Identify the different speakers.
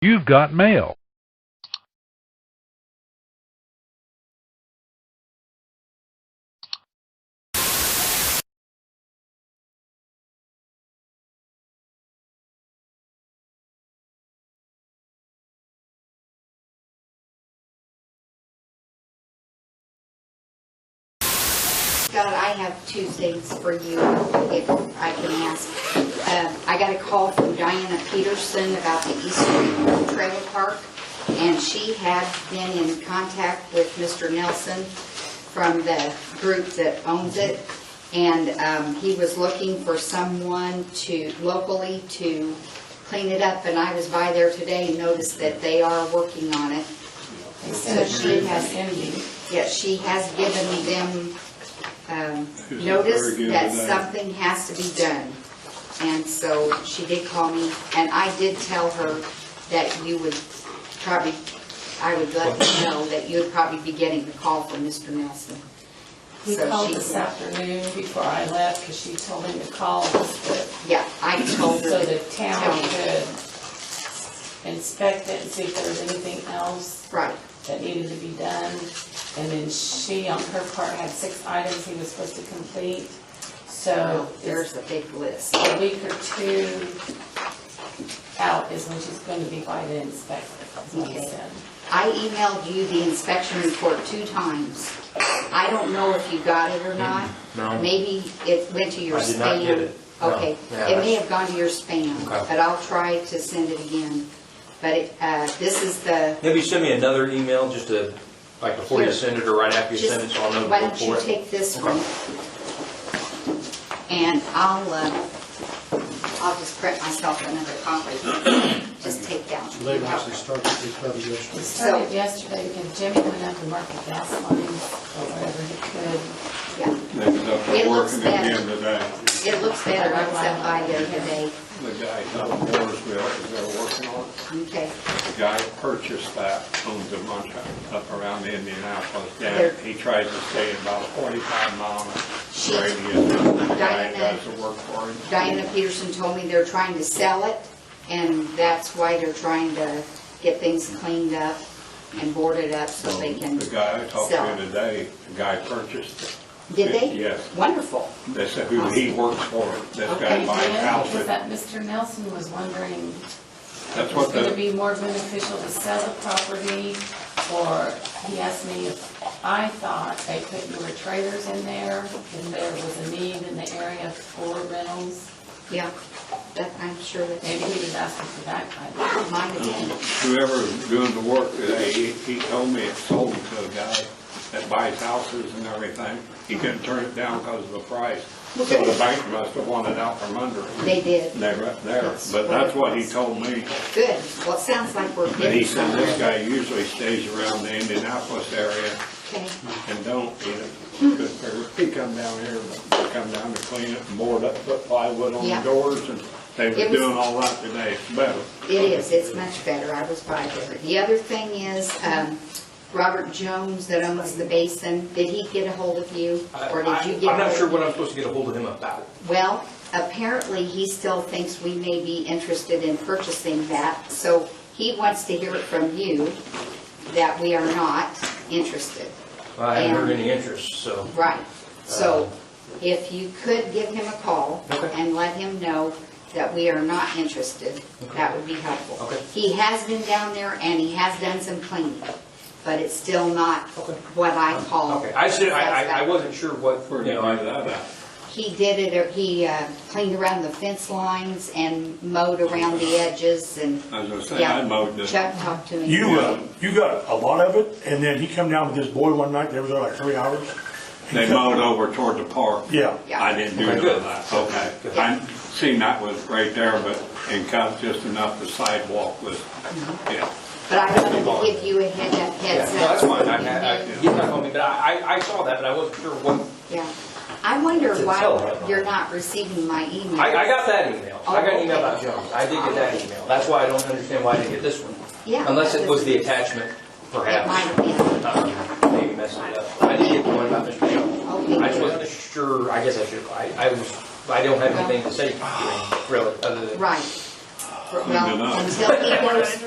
Speaker 1: You've got mail.
Speaker 2: Scott, I have two things for you, if I can ask. Um, I got a call from Diana Peterson about the East Street Trailer Park, and she had been in contact with Mr. Nelson from the group that owns it, and um, he was looking for someone to, locally, to clean it up, and I was by there today and noticed that they are working on it. So she has, yeah, she has given them um,
Speaker 3: She's
Speaker 2: notice
Speaker 3: very good
Speaker 2: that
Speaker 3: with that.
Speaker 2: something has to be done. And so she did call me, and I did tell her that you would probably, I would let her know that you would probably be getting the call from Mr. Nelson.
Speaker 4: He
Speaker 2: So
Speaker 4: called
Speaker 2: she-
Speaker 4: this afternoon before I left, because she told him to call us, but-
Speaker 2: Yeah, I told her.
Speaker 4: so the
Speaker 2: to
Speaker 4: town
Speaker 2: tell you.
Speaker 4: could inspect it and see if there was anything else
Speaker 2: Right,
Speaker 4: that needed to be done. And then she, on her part, had six items he was supposed to complete, so
Speaker 2: so
Speaker 4: there's
Speaker 2: there's a big list.
Speaker 4: a week or two out is when she's going to be by the inspector, is what he
Speaker 2: Okay.
Speaker 4: said.
Speaker 2: I emailed you the inspection report two times. I don't know if you got it or not.
Speaker 5: Mm, No.
Speaker 2: Maybe it went to your spam.
Speaker 5: I did not get it. No.
Speaker 2: Okay,
Speaker 5: Yeah,
Speaker 2: it may have gone to your spam,
Speaker 5: Okay.
Speaker 2: but I'll try to send it again. But it, uh, this is the,
Speaker 5: Maybe send me another email, just to, like before you send it or right after you
Speaker 2: just,
Speaker 5: send it, so I'll know
Speaker 2: why
Speaker 5: before.
Speaker 2: don't you take this one? And I'll, uh, I'll just print myself another copy. Just take that. one.
Speaker 6: Labor actually started this probably
Speaker 4: It
Speaker 6: yesterday.
Speaker 4: started yesterday because Jimmy went up and marked the gas lines or whatever he could.
Speaker 2: Yeah,
Speaker 3: They was
Speaker 2: It
Speaker 3: up there
Speaker 2: looks better.
Speaker 3: working again today.
Speaker 2: it looks better. I was up by there today.
Speaker 3: The guy down in Mooresville is there working on it.
Speaker 2: Okay.
Speaker 3: The guy purchased that, owns a bunch of up around Indianapolis. Down, he tries to stay about a 45 mile
Speaker 2: She-
Speaker 3: radius. from The
Speaker 2: Diana-
Speaker 3: guy that does the work for him.
Speaker 2: Diana Peterson told me they're trying to sell it, and that's why they're trying to get things cleaned up and boarded up so they can
Speaker 3: The guy I talked
Speaker 2: sell.
Speaker 3: to today, the guy purchased it.
Speaker 2: Did they?
Speaker 3: Yes.
Speaker 2: Wonderful.
Speaker 3: They said who he works for, this
Speaker 4: Okay,
Speaker 3: guy buys
Speaker 4: Because
Speaker 3: houses.
Speaker 4: that Mr. Nelson was wondering,
Speaker 3: That's
Speaker 4: if it's
Speaker 3: what
Speaker 4: going to
Speaker 3: the,
Speaker 4: be more beneficial to sell the property? Or he asked me if I thought they put newer trailers in there, if there was a need in the area for rentals.
Speaker 2: Yeah, that, I'm sure that they
Speaker 4: Maybe he was asking for that kind of.
Speaker 2: might have been.
Speaker 3: whoever's doing the work today, he he told me it sold to a guy that buys houses and everything. He couldn't turn it down because of the price. So the bank must have wanted out from under it.
Speaker 2: They did.
Speaker 3: They were there, but that's what he told me.
Speaker 2: Good. Well, it sounds like we're
Speaker 3: And he
Speaker 2: getting
Speaker 3: said
Speaker 2: somewhere.
Speaker 3: this guy usually stays around the Indianapolis area
Speaker 2: Okay,
Speaker 3: and don't, you
Speaker 2: Hmm.
Speaker 3: know, good for- he come down here, but come down to clean it and board up, put plywood on
Speaker 2: Yeah.
Speaker 3: the doors and they
Speaker 2: It
Speaker 3: were
Speaker 2: was-
Speaker 3: doing all that today. It's better.
Speaker 2: it is, it's much better. I was by there. The other thing is, um, Robert Jones that owns the basin, did he get a hold of you?
Speaker 5: I-
Speaker 2: Or did you
Speaker 5: I-
Speaker 2: get?
Speaker 5: I'm not
Speaker 2: ahold
Speaker 5: sure
Speaker 2: of
Speaker 5: what I'm supposed to get a hold of him about.
Speaker 2: Well, apparently, he still thinks we may be interested in purchasing that, so he wants to hear it from you that we are not interested.
Speaker 5: I haven't heard
Speaker 2: And-
Speaker 5: any interest, so.
Speaker 2: Right, so if you could give him a call
Speaker 5: Uh-huh. Okay.
Speaker 2: and let him know that we are not interested, that would be helpful.
Speaker 5: Okay.
Speaker 2: He has been down there and he has done some cleaning, but it's still not
Speaker 5: Okay. Um,
Speaker 2: what I call.
Speaker 5: Okay, I should, I, I- I
Speaker 2: satisfactory.
Speaker 5: wasn't sure what,
Speaker 3: We're
Speaker 5: you know,
Speaker 3: gonna do
Speaker 5: I-
Speaker 3: that out.
Speaker 2: He did it, he uh, cleaned around the fence lines and mowed around the edges and.
Speaker 3: I was gonna say, I
Speaker 2: Yeah,
Speaker 3: mowed this.
Speaker 2: Chuck talked to me.
Speaker 7: You, uh, you got a lot of it, and then he come down with this boy one night, they was there like three hours.
Speaker 3: They mowed over toward the park.
Speaker 7: Yeah.
Speaker 2: Yeah.
Speaker 3: I didn't do
Speaker 5: Okay,
Speaker 3: none
Speaker 5: good.
Speaker 3: of that, okay. I seen that was right there, but it cut just enough, the sidewalk was, yeah.
Speaker 2: But I wanted to give you a heads up,
Speaker 5: yeah,
Speaker 2: heads up.
Speaker 5: no, that's fine, I, I, I- he's not calling me, but I, I- I saw that, and I wasn't sure what,
Speaker 2: Yeah. I wonder
Speaker 5: It's a
Speaker 2: why
Speaker 5: telephone.
Speaker 2: you're not receiving my email.
Speaker 5: I, I got that email. I got an email about Jones, I did get that email, that's why I don't understand why I didn't get this one.
Speaker 2: Yeah.
Speaker 5: Unless it was the attachment,
Speaker 2: It might
Speaker 5: perhaps.
Speaker 2: have
Speaker 5: Uh, Maybe messed it up. I did get the one about Mr. Jones.
Speaker 2: been. Okay.
Speaker 5: I just wasn't sure, I guess I should, I, I was, I don't have anything to say, really, other than.
Speaker 2: Right.
Speaker 3: enough.
Speaker 2: Well, until he goes